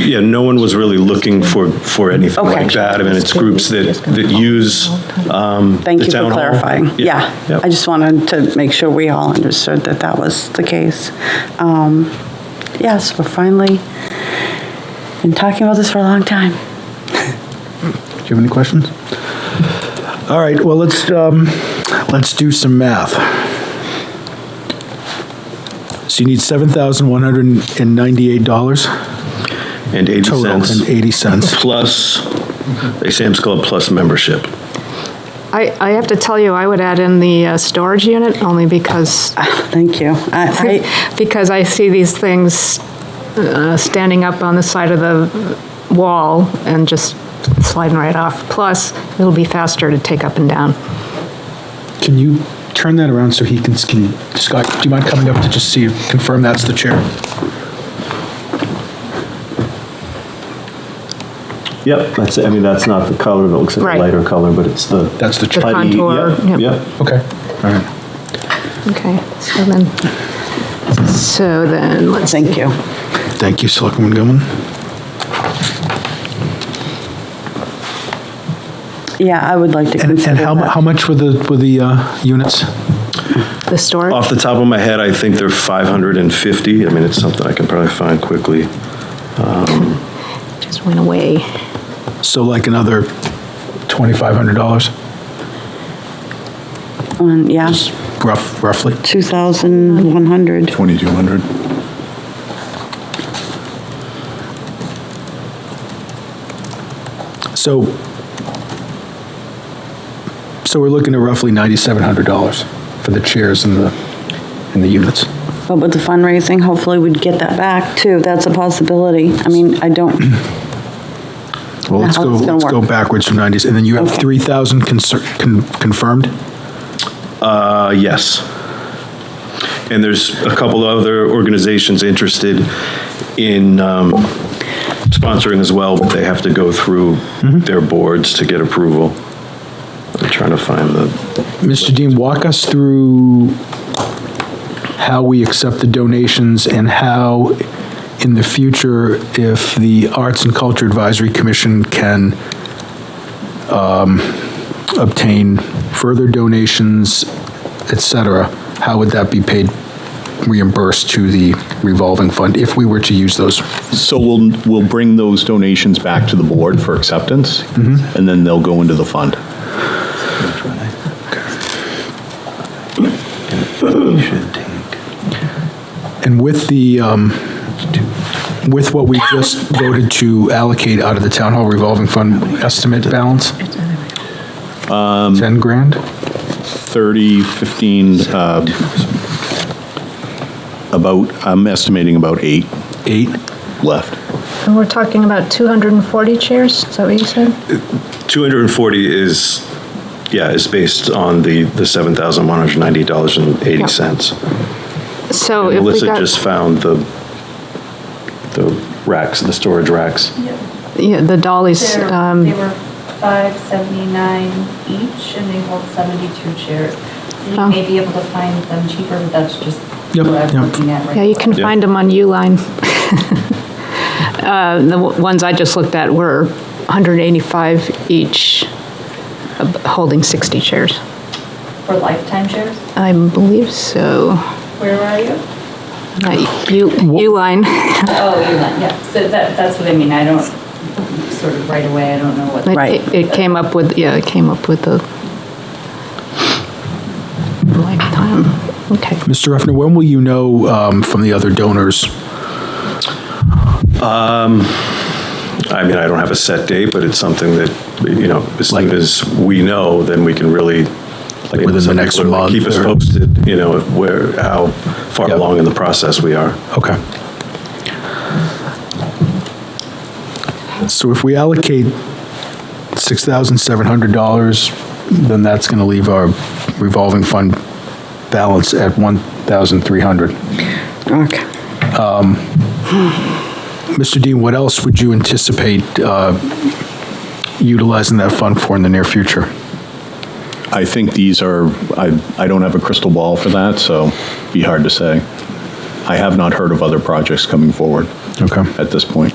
yeah, no one was really looking for, for anything Okay. like that. I mean, it's groups that, that use um, Thank the you for town hall. clarifying. Yeah, yeah. I just wanted to make sure we all understood that that was the case. Um, Yes, we're finally, been talking about this for a long time. Do you have any questions? All right, well, let's, um, let's do some math. So you need seven thousand one hundred and ninety-eight dollars And 80 total cents. and eighty cents. Plus, a Sam's Club plus membership. I, I have to tell you, I would add in the uh, storage unit only because, Thank you. I, I- because I see these things uh, standing up on the side of the wall and just sliding right off. Plus, it'll be faster to take up and down. Can you turn that around so he can, can, Scott, do you mind coming up to just see, confirm that's the chair? Yep, that's, I mean, that's not the color, that looks like Right. a lighter color, but it's the. That's the The chair. putty- contour, Yep, yep. yep. Okay, all right. Okay, so then, so then, let's see. thank you. Thank you, Selectwoman Gilman. Yeah, I would like to And, consider and how, mu- that. how much were the, were the, uh, units? the storage. Off the top of my head, I think they're 550. I mean, it's something I can probably find quickly. Just went away. So like another twenty-five hundred dollars, Um, Yeah, rough, roughly? 2,100. 2,200. So, so we're looking at roughly $9,700 for the chairs and the, and the units. But with the fundraising, hopefully we'd get that back too. That's a possibility. I mean, I don't, Mm-hmm. Well, let's Now go, it's gonna let's go work. backwards from 90s, and then you have Okay. 3,000 concer- con- confirmed? Uh, Yes. And there's a couple other organizations interested in um, sponsoring as well, but they have to go through Mm-hmm. their boards to get approval. I'm trying to find the, Mr. Dean, walk us through how we accept the donations and how, in the future, if the Arts and Culture Advisory Commission can um, obtain further donations, et cetera, how would that be paid, reimbursed to the revolving fund if we were to use those? So we'll, we'll bring those donations back to the board for acceptance, Mm-hmm. and then they'll go into the fund. And with the, um, with what we just voted to allocate out of the town hall revolving fund estimate balance? 10 grand? 30, 15, uh, about, I'm estimating about eight Eight? left. And we're talking about 240 chairs, is that what you said? 240 is, yeah, is based on the, the $7,190.80. So Oh, if we Melissa got, just found the, the racks, the storage racks. yeah, the dollies, They're- um, They were five seventy-nine each, and they hold seventy-two chairs. And Oh. You may be able to find them cheaper, but that's just Yep, what I'm yep. looking at right Yeah, you now. can Yeah. find them on Uline. Uh, The w- ones I just looked at were 185 each, uh, holding 60 chairs. For lifetime chairs, I believe so. where are you? Not U- Uline, Oh, you're not, yeah, so that, that's what I mean, I don't, sort of right away, I don't know what. It- Right. it- It came up with, yeah, it came up with the lifetime, okay. Mr. Ruffner, when will you know um, from the other donors? I mean, I don't have a set date, but it's something that, you know, as soon as we know, then we can really. Like within the next Sort of like Keep month us or- posted, you know, where, how far Yep. along in the process we are. Okay. So if we allocate $6,700, then that's going to leave our revolving fund balance at 1,300. okay. Mr. Dean, what else would you anticipate uh, utilizing that fund for in the near future? I think these are, I, I don't have a crystal ball for that, so be hard to say. I have not heard of other projects coming forward Okay. at this point.